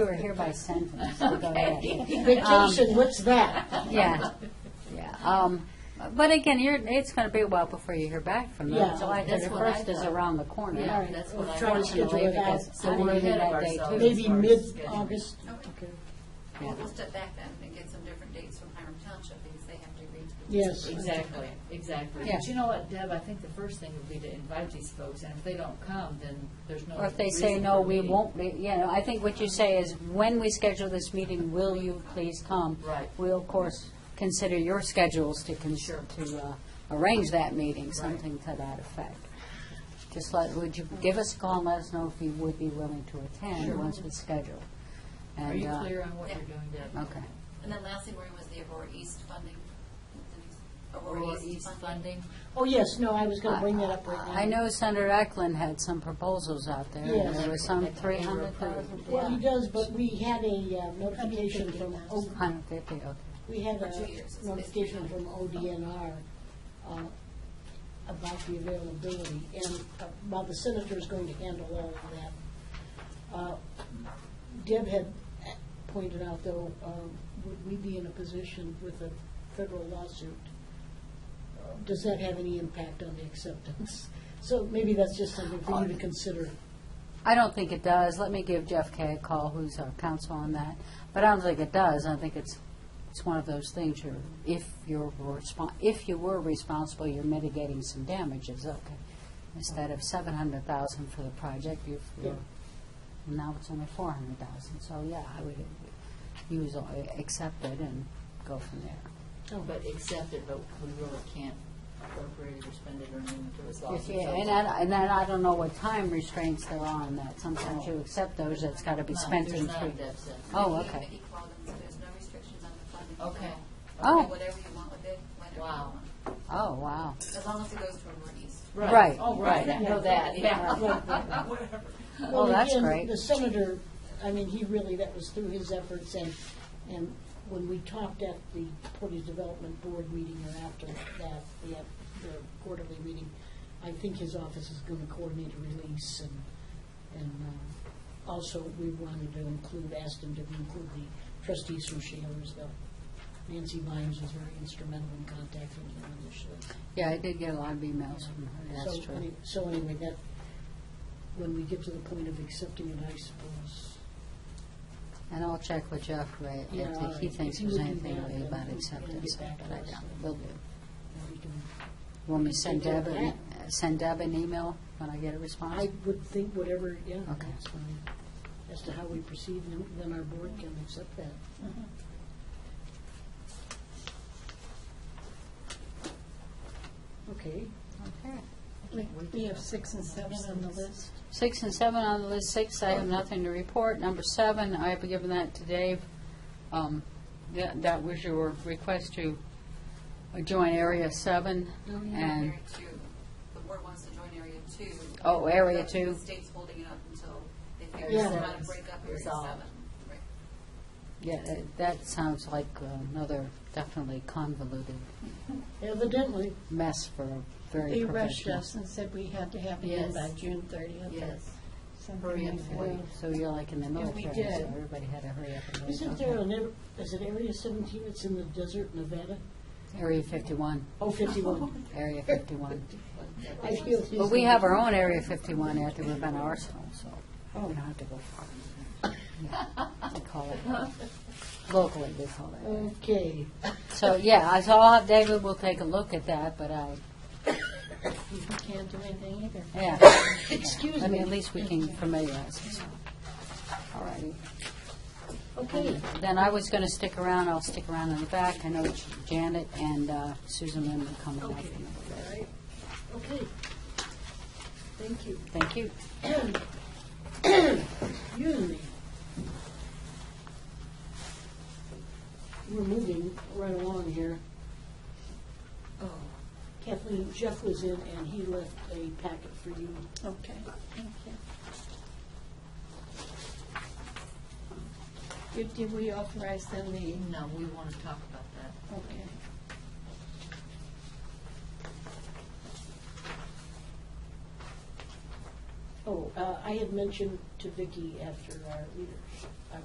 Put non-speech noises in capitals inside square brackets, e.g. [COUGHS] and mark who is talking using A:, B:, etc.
A: We were here by sentence. so go ahead. Um,
B: Vacation,
A: [LAUGHS]
B: what's that?
A: Yeah, yeah. Um, But again, you're, it's going to be a while before you hear back from them.
B: Yeah,
A: July
C: that's what I
A: 31st is
C: thought.
A: around the corner.
C: Yeah, that's what I.
B: Trying to schedule
A: Unfortunately,
B: it out,
A: because
C: so
A: I'm
C: we're
A: leaving
C: ahead
A: that
C: of
A: day
C: ourselves.
A: too.
B: Maybe
C: Sorry.
B: mid-August?
D: Okay.
A: Yeah.
D: We'll we'll step back then and get some different dates from Hiram Township because they have to agree to. the-
B: Yes.
C: Exactly, exactly.
A: Yeah.
C: But you know what, Deb, I think the first thing would be to invite these folks, and if they don't come, then there's no.
A: Or if they say,
C: reason
A: no,
C: for a
A: we
C: meeting."
A: won't, be you know, I think what you say is, when we schedule this meeting, will you please come?
C: Right.
A: We'll, of course, consider your schedules to, cons-
C: Sure.
A: to uh, arrange that meeting, something to that effect. Just let, would you give us a call and let us know if you would be willing to attend once it's scheduled?
C: Are
A: And,
C: you
A: uh,
C: clear on what
D: yeah.
C: you're doing, Deb?
A: Okay.
D: And then lastly, where was the Aurora East funding?
C: Or East funding?
B: Oh, yes, no, I was going to bring that up right now.
A: I know Senator Eklund had some proposals out there, and
B: Yes.
A: there was some
C: That they
A: three hundred thousand.
C: approved.
B: Well, he does, but we had a uh, notification from, O-
A: Hundred fifty, okay.
B: we had
D: For two years,
B: a
D: it's
B: notification
D: basically-
B: from ODNR uh, about the availability, and uh, while the senator is going to handle all of that, uh, Deb had pointed out, though, um, would we be in a position with a federal lawsuit? Does that have any impact on the acceptance? So maybe that's just something for you to consider.
A: I don't think it does. Let me give Jeff Kay a call, who's our counsel on that. But I don't think it does. I think it's, it's one of those things, you're, if you're respon if you were responsible, you're mitigating some damages, okay. Instead of seven hundred thousand for the project, you've, you're, now it's only four hundred thousand. So, yeah, I would use, accept it and go from there.
C: Oh. But accept it, but we really can't appropriate it or spend it or anything until it's
A: If
C: lost.
A: you- And I, and then I don't know what time restraints there are on that.
B: Oh.
A: Sometimes you accept those, it's gotta be
C: No,
A: spent
C: there's
A: in
C: not a
A: three.
C: Deb said.
A: Oh, okay.
D: so there's no restrictions on the funding. at
C: Okay.
D: all.
A: Oh.
D: Do Whatever you want with it, whenever you
C: Wow.
D: want.
A: Oh, wow.
D: As long as it goes to Aurora East.
A: Right.
C: Oh, right, I know
A: [LAUGHS]
C: that, yeah.
A: Oh, that's
B: again,
A: great.
B: The senator, I mean, he really, that was through his efforts, and, and when we talked at the Portage Development Board meeting or after that, the, the quarterly meeting, I think his office is gonna coordinate a release, and, and, uh, also, we wanted to include, asked him to include the trustees from Shaler's, though. Nancy Bynes was very instrumental in contacting him initially.
A: Yeah, I did get a lot of emails from her, that's
B: So, any-
A: true.
B: So anyway, that, when we get to the point of accepting it, I suppose.
A: And I'll check with Jeff Ray
B: Yeah, all
A: if he
B: right.
A: thinks
B: If you
A: there's
B: would do
A: anything
B: that,
A: really
B: then
A: about
B: we can
A: acceptance,
B: get back
A: but
B: to
A: I
B: us.
A: doubt it. will do.
B: that we can-
A: Want me to send
B: do
A: Deb, an e-
B: that.
A: uh, send Deb an email when I get a response?
B: I would think whatever, yeah,
A: Okay.
B: that's fine. As to how we proceed, then then our board can accept that.
A: Mm-hmm.
B: Okay.
A: Okay.
E: We have six and seven on the list.
A: Six and seven on the list, six, I have nothing to report. Number seven, I have given that to Dave. Um, That that was your request to join Area Seven, and
D: Area two, the board wants to join Area two.
A: Oh, Area
D: The-
A: two.
D: The state's holding it up until they
C: Area
D: figure out how to
C: seven's
D: break up Area
C: resolved.
D: seven. Right.
A: yeah, that- that sounds like uh, another definitely convoluted
B: Evidently,
A: mess for a very
E: They rushed
A: professional.
E: us and said we had to have it
C: Yes.
E: in by June thirtieth.
C: Yes.
E: Something
C: Hurry up
E: like
C: and
E: that.
C: wait.
A: So you're like in the
E: Yeah, we
A: military,
E: did.
A: so everybody had to hurry up and wait.
B: isn't there
A: Okay.
B: an, ar- is it Area 17, it's in the desert, Nevada?
A: Area 51, [LAUGHS]
B: Oh, 51.
A: Area 51.
B: I feel.
A: But we have our own Area 51 after we've been Arsenal, so we don't have to go far. Yeah, They call it, locally they call it.
B: Okay.
A: So, yeah, I- so I'll have David, will take a look at that, but uh, I,
E: We can't do anything either.
A: yeah.
B: [COUGHS] Excuse
A: I mean, at
B: me.
A: least we can familiarize us. All righty.
B: Okay.
A: Then I was going to stick around, I'll stick around in the back. I know Janet and uh, Susan Lynn will come up.
B: Okay. All right. Okay. Thank you.
A: Thank you.
B: Excuse me. We're moving right along here. Oh, Kathleen, Jeff was in and he left a packet for you.
E: Okay, thank you. Did, did we authorize them the,
C: No, we want to talk about that.
E: okay.
B: Oh, uh, I had mentioned to Vicki after our leadership